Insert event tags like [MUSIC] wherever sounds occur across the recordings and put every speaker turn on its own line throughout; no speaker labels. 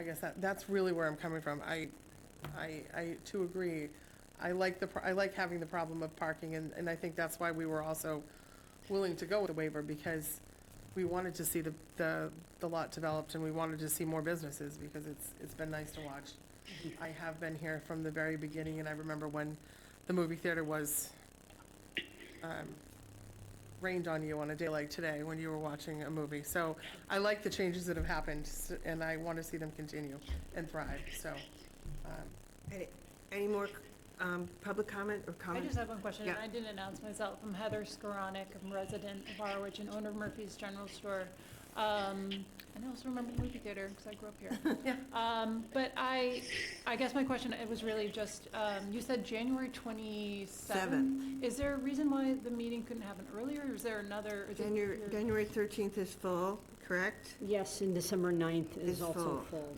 I guess that, that's really where I'm coming from. I, I, I too agree. I like the, pro- I like having the problem of parking, and, and I think that's why we were also willing to go with the waiver, because we wanted to see the, the, the lot developed, and we wanted to see more businesses, because it's, it's been nice to watch. I have been here from the very beginning, and I remember when the movie theater was, um, rained on you on a day like today when you were watching a movie. So I like the changes that have happened, s- and I want to see them continue and thrive, so. um,
Any- Any more um, public comment or
I
comment?
just have one question, and
Yeah.
I didn't announce myself. I'm Heather Skoranek, I'm a resident of Harwich and owner of Murphy's General Store. Um, and I also remember the movie theater, because I grew up
[LAUGHS]
here.
Yeah.
Um, but I, I guess my question, it was really just, um, you said January twenty-seventh? Is there a reason why the meeting couldn't happen earlier, or is there another? is it
January
your-
January 13th is full, correct?
Yes, and December 9th
Is
is also
full.
full.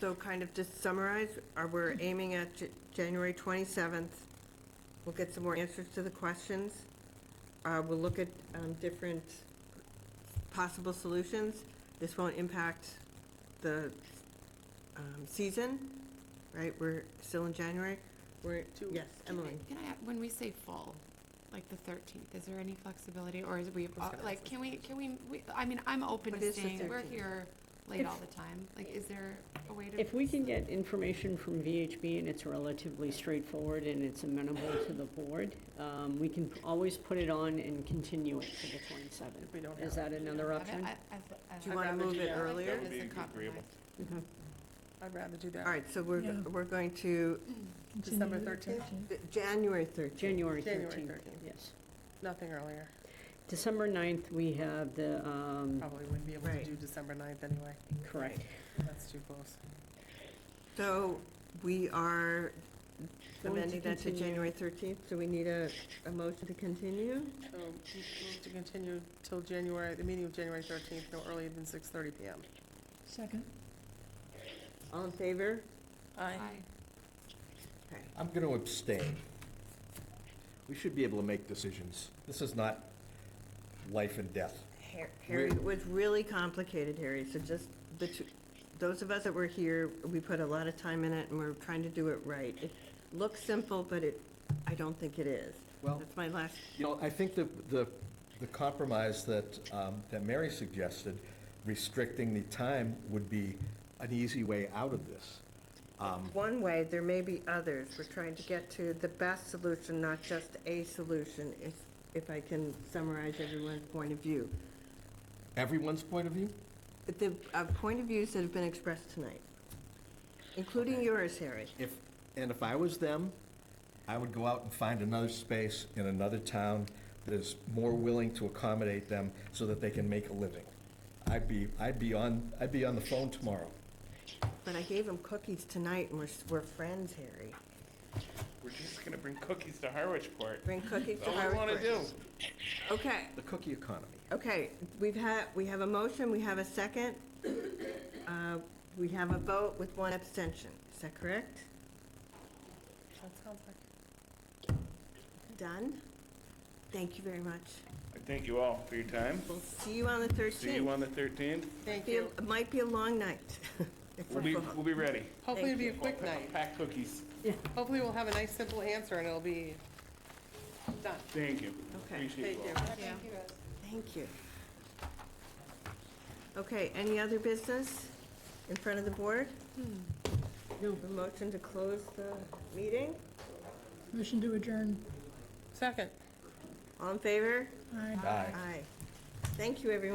So kind of just summarize, are we're aiming at J- January 27th? We'll get some more answers to the questions. Uh, We'll look at um, different possible solutions. This won't impact the um, season, right? We're still in January? We're,
Two
yes, Emily?
Can I, when we say full, like the thirteenth, is there any flexibility, or is we, uh,
gonna ask
like,
that
can we, can we, we, I mean, I'm open
What
to
is the
staying, we're
13th?
here late
If-
all the time, like, is there a way to?
If we can get information from VHB and it's relatively straightforward and it's amenable to the board, um, we can always put it on and continue it to the 27th.
If we don't
Is
have
that
I mean,
another
I-
option?
I- I- I-
Do you
I'd
want to
rather
move
do
it
that.
earlier?
That is a
Be agreeable.
compromise.
Okay.
I'd rather do
All
that.
right, so we're,
Yeah.
we're going to
December 13th,
January 13th.
January
January
13th,
13th.
yes.
nothing earlier.
December 9th, we have the, um,
Probably wouldn't be able to
Right.
do December 9th anyway.
correct.
That's too close.
So we are
Going to
amending that to
continue.
January 13th, so we need a, a motion to continue?
So move to continue till January, the meeting of January 13th, no earlier than 6:30 PM.
Second.
All in favor?
Aye.
Aye.
Okay.
I'm going to abstain. We should be able to make decisions. This is not life and death.
Har- Harry, it was really complicated, Harry, so just the two, those of us that were here, we put a lot of time in it and we're trying to do it right. It looks simple, but it, I don't think it is.
Well-
That's my last,
You know, I think the, the, the compromise that, um, that Mary suggested, restricting the time would be an easy way out of this. Um,
one way, there may be others. We're trying to get to the best solution, not just a solution, if, if I can summarize everyone's point of view.
Everyone's point of view?
The uh, point of views that have been expressed tonight, including yours, Harry.
If, and if I was them, I would go out and find another space in another town that is more willing to accommodate them so that they can make a living. I'd be, I'd be on, I'd be on the phone tomorrow.
But I gave him cookies tonight, and we're, we're friends, Harry.
We're just gonna bring cookies to Harwichport.
Bring cookies
That's
to
all we
Howard
wanna do.
Brooks. Okay,
The cookie economy.
okay, we've had, we have a motion, we have a second. Uh, We have a vote with one abstention, is that correct?
That sounds like
Done? Thank you very much.
I thank you all for your time.
We'll see you on the 13th.
See you on the thirteenth.
Thank
Be a-
you.
It might be a long night. [LAUGHS] if we're
We'll be,
full.
we'll be ready.
Hopefully it'll be a
you.
quick night.
Pack cookies.
Hopefully we'll have a nice, simple answer, and it'll be done.
Thank you.
Okay.
Appreciate
Thank
you
you.
all.
Thank you, guys.
Thank you. Okay, any other business in front of the board? No. A motion to close the meeting?
Motion to adjourn.
Second.
All in favor?
Aye.
Aye.
Aye. Thank you, everyone.